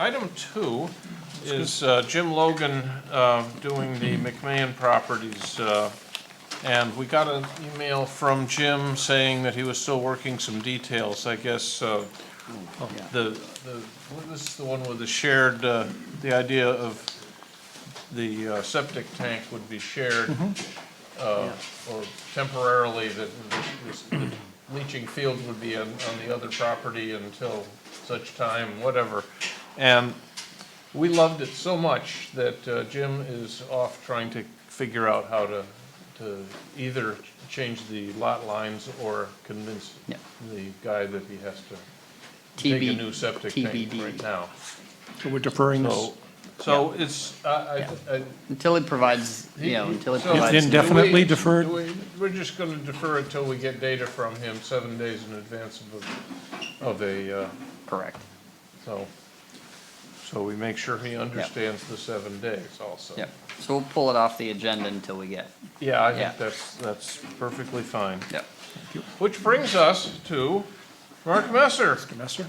Item two is uh, Jim Logan uh, doing the McMahon properties. uh, And we got an email from Jim saying that he was still working some details, I guess. uh, The, the- what was the one with the shared, uh, the idea of the uh, septic tank would be shared uh, or temporarily that this- this leaching field would be on, on the other property until such time, whatever. And we loved it so much that uh, Jim is off trying to figure out how to, to either change the lot lines or convince Yeah. the guy that he has to dig a TB new septic tank TBD. right now. So we're deferring this. So, so it's, I, I, I, Until it provides, you know, until it So- provides. It's indefinitely Do we- deferred? do we- We're just gonna defer it till we get data from him seven days in advance of, a- of a, uh, Correct. so, so we make sure he understands the seven days also. Yep. So we'll pull it off the agenda until we get, Yeah, I Yeah. think that's, that's perfectly fine. yep. Which brings us to Mark Messer, Messer?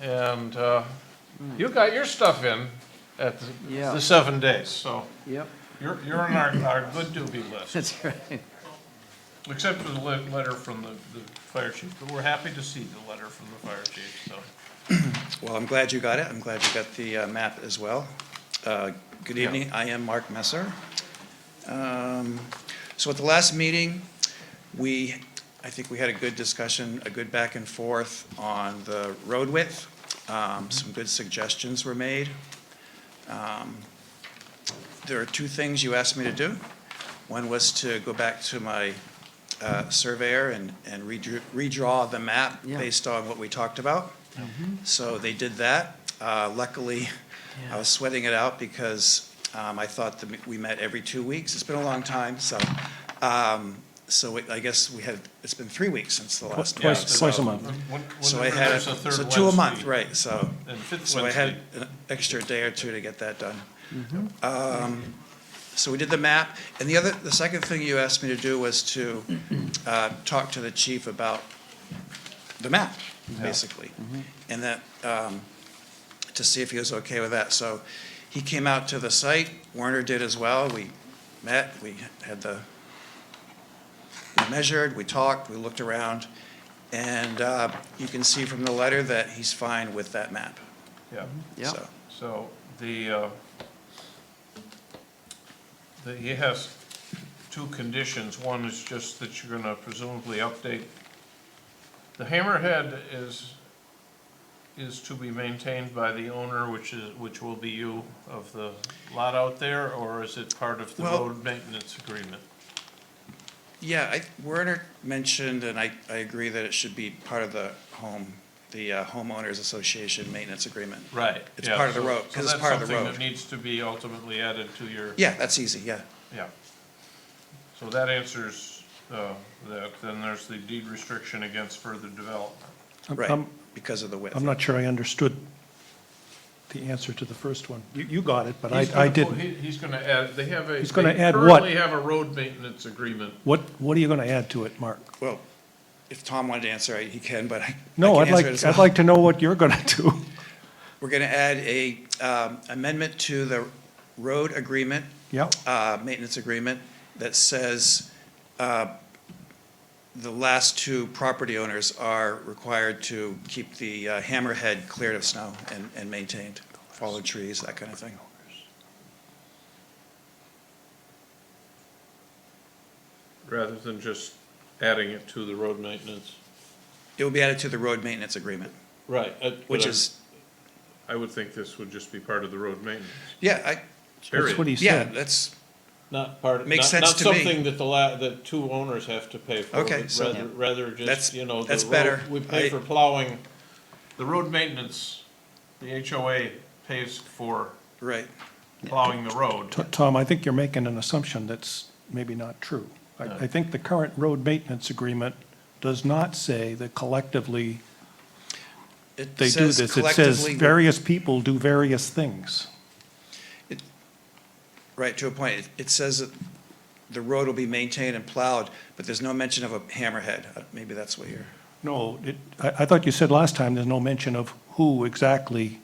and, uh, you got your stuff in at the- Yeah. the seven days, so Yep. you're, you're on our, our good doobie list. That's right. Except for the le- letter from the, the fire chief, but we're happy to see the letter from the fire chief, so. Well, I'm glad you got it. I'm glad you got the uh, map as well. Uh, Good evening. I am Mark Messer. Um, So at the last meeting, we, I think we had a good discussion, a good back and forth on the road width. Um, Some good suggestions were made. Um, There are two things you asked me to do. One was to go back to my uh, surveyor and and redrew- redraw the map Yeah. based on what we talked about. So they did that. Uh, Luckily, I was sweating it out because um, I thought that we- we met every two weeks. It's been a long time, so, um, so it- I guess we had, it's been three weeks since the last. Twice- meeting, so- twice a month. When- So I whenever had, there's a third so two a month, Wednesday right, so. And fifth So I had Wednesday, an extra day or two to get that done. Um, So we did the map, and the other, the second thing you asked me to do was to uh, talk to the chief about the map, basically. And that, um, to see if he was okay with that. So he came out to the site, Werner did as well, we met, we had the, we measured, we talked, we looked around, and uh, you can see from the letter that he's fine with that map. yeah, Yeah. So, so the, uh, the, he has two conditions. One is just that you're gonna presumably update. The hammerhead is, is to be maintained by the owner, which is, which will be you of the lot out there, or is it part of the Well- road maintenance agreement? Yeah, I, Werner mentioned, and I, I agree that it should be part of the home, the uh, homeowners association maintenance agreement. Right. It's yeah, part of the so- road, 'cause it's part of the So that's road. something that needs to be ultimately added to your, Yeah, that's easy, yeah. yeah. So that answers uh, that. Then there's the deed restriction against further development. I'm- Right, I'm- because of the width. I'm not sure I understood the answer to the first one. You, you got it, but He's I, gonna I put- didn't. he- He's gonna add, they have a. He's gonna they add what? Currently have a road maintenance agreement. What, what are you going to add to it, Mark? Well, if Tom wanted to answer, I- he can, but I. I No, can I'd answer like, it as I'd well. like to know what you're going to do. We're going to add a um, amendment to the road agreement, Yeah, uh, maintenance agreement, that says uh, the last two property owners are required to keep the uh, hammerhead cleared of snow and, and maintained, fallen trees, that kind of thing. Rather than just adding it to the road maintenance. It will be added to the road maintenance agreement, Right. uh, but which I- is, I would think this would just be part of the road maintenance, yeah, I, that's what period. he yeah, said. that's, Not part, not, not Makes sense to me. something that the la, that two owners have to pay for. Okay, but so- Rather, rather just, That's- you know, the that's better. road, we pay I- for plowing. The road maintenance, the HOA pays for right. plowing the road. T- Tom, I think you're making an assumption that's maybe not true. I, I think the current road maintenance agreement does not say that collectively It they do says this. It says collectively- various people do various things. Right, to a point. It- It says that the road will be maintained and plowed, but there's no mention of a hammerhead. Uh, Maybe that's what you're, No, it, I, I thought you said last time, there's no mention of who exactly